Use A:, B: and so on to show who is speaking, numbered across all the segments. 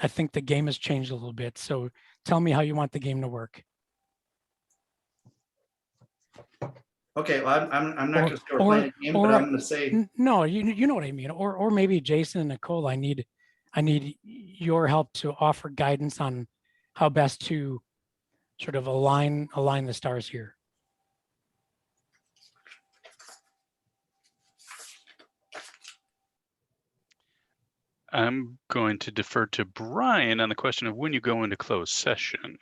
A: I think the game has changed a little bit. So tell me how you want the game to work.
B: Okay, well, I'm, I'm, I'm not
A: Or-
B: gonna say we're
A: or-
B: playing a game, but
A: or-
B: I'm gonna say,
A: N- No, you you know what I mean. Or or maybe Jason and Nicole, I need I need your help to offer guidance on how best to sort of align align the stars here.
C: I'm going to defer to Brian on the question of when you go into closed session.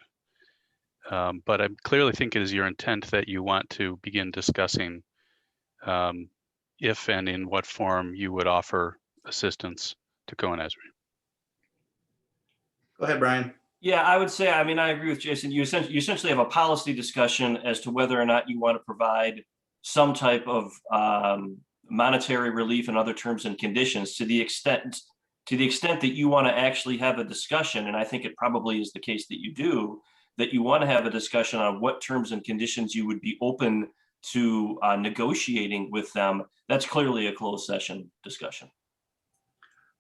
C: Um, but I clearly think it is your intent that you want to begin discussing um, if and in what form you would offer assistance to Cohen Ezra.
B: go ahead, Brian.
D: Yeah, I would say, I mean, I agree with Jason. You essentially, you essentially have a policy discussion as to whether or not you want to provide some type of um, monetary relief and other terms and conditions to the extent, to the extent that you want to actually have a discussion, and I think it probably is the case that you do, that you want to have a discussion on what terms and conditions you would be open to uh, negotiating with them. That's clearly a closed session discussion.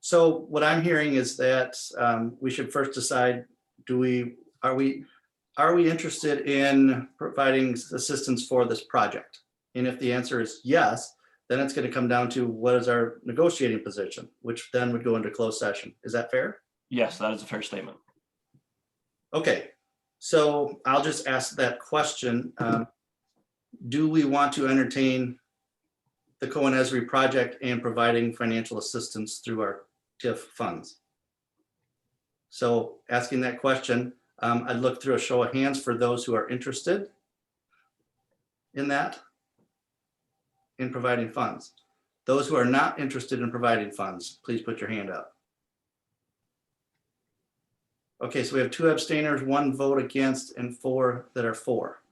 B: So what I'm hearing is that um, we should first decide, do we, are we, are we interested in providing assistance for this project? And if the answer is yes, then it's gonna come down to what is our negotiating position, which then would go into closed session. Is that fair?
D: Yes, that is a fair statement.
B: Okay, so I'll just ask that question. um, Do we want to entertain the Cohen Esri project and providing financial assistance through our TIF funds? So asking that question, um, I'd look through a show of hands for those who are interested in that, in providing funds. Those who are not interested in providing funds, please put your hand up. Okay, so we have two abstainers, one vote against, and four that are for.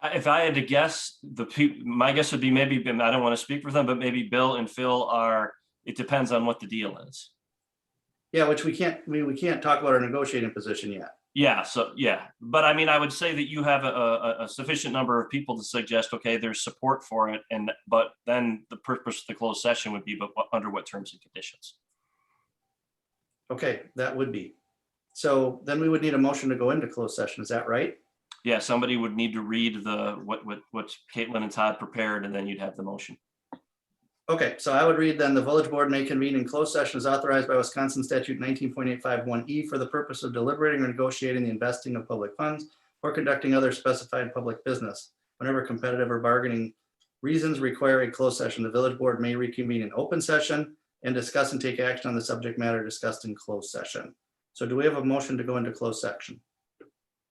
D: I- If I had to guess, the people, my guess would be maybe, Bim- I don't want to speak for them, but maybe Bill and Phil are, it depends on what the deal is.
B: Yeah, which we can't, we, we can't talk about our negotiating position yet.
D: Yeah, so, yeah, but I mean, I would say that you have a, a, a sufficient number of people to suggest, okay, there's support for it, and, but then the purpose of the closed session would be, but what- under what terms and conditions?
B: Okay, that would be. So then we would need a motion to go into closed session, is that right?
D: Yeah, somebody would need to read the, what, what, what Caitlin and Todd prepared, and then you'd have the motion.
B: Okay, so I would read then, the village board may convene in closed session as authorized by Wisconsin statute nineteen point eight five one E for the purpose of deliberating or negotiating the investing of public funds or conducting other specified public business. Whenever competitive or bargaining reasons require a closed session, the village board may reconvene in open session and discuss and take action on the subject matter discussed in closed session. So do we have a motion to go into closed section?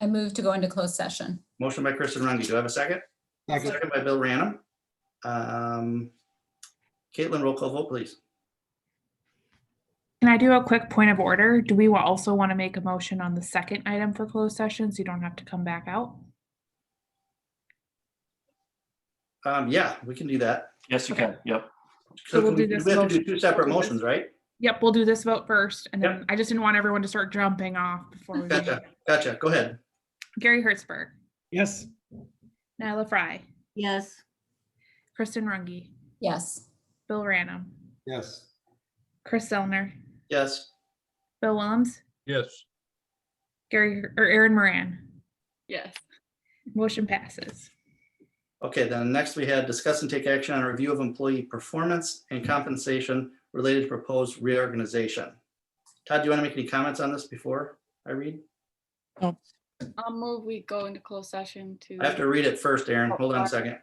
E: I move to go into closed session.
B: Motion by Kristen Rungy. Do I have a second? Second by Bill Ranum. Um, Caitlin, roll call vote, please.
F: Can I do a quick point of order? Do we wa- also want to make a motion on the second item for closed sessions? You don't have to come back out.
B: Um, yeah, we can do that.
D: Yes, you can, yep.
B: So
F: So we'll
B: can we
F: do
B: we
F: this
B: have to do
F: motion.
B: two separate motions, right?
F: Yep, we'll do this vote first, and
B: Yep.
F: then I just didn't want everyone to start jumping off before we.
B: Gotcha, gotcha. Go ahead.
F: Gary Hertzberg,
G: Yes.
F: Nyla Fry,
H: Yes.
F: Kristen Runge,
E: Yes.
F: Bill Ranum,
G: Yes.
F: Chris Zellner,
B: Yes,
F: Bill Willems,
G: Yes.
F: Gary, or Aaron Moran.
H: Yes.
F: Motion passes.
B: okay, then next we had discuss and take action on a review of employee performance and compensation related to proposed reorganization. Todd, do you want to make any comments on this before I read?
H: I'll move, we go into closed session to.
B: I have to read it first, Aaron. Hold on a second.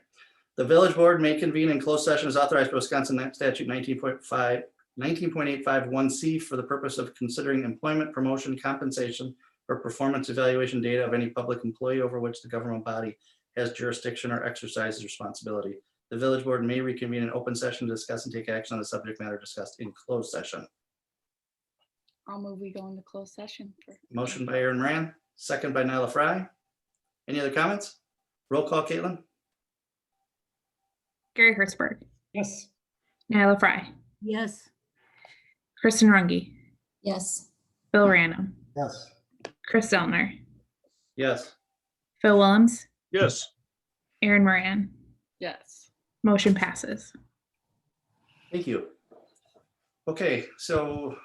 B: The village board may convene in closed session as authorized by Wisconsin statute 19.5, 19.851C for the purpose of considering employment, promotion, compensation, or performance evaluation data of any public employee over which the government body has jurisdiction or exercises responsibility. The village board may reconvene in open session to discuss and take action on the subject matter discussed in closed session.
H: I'll move, we go into closed session. for-
B: Motion by Aaron Moran, second by Nyla Fry. Any other comments? Roll call, Caitlin?
F: Gary Hertzberg,
G: Yes.
F: Nyla Fry,
H: Yes.
F: Kristen Runge,
E: Yes.
F: Bill Ranum,
G: Yes.
F: Chris Zellner,
B: Yes.
F: Phil Willems,
G: Yes.
F: Aaron Moran.
H: Yes.
F: Motion passes.
B: Thank you. Okay, so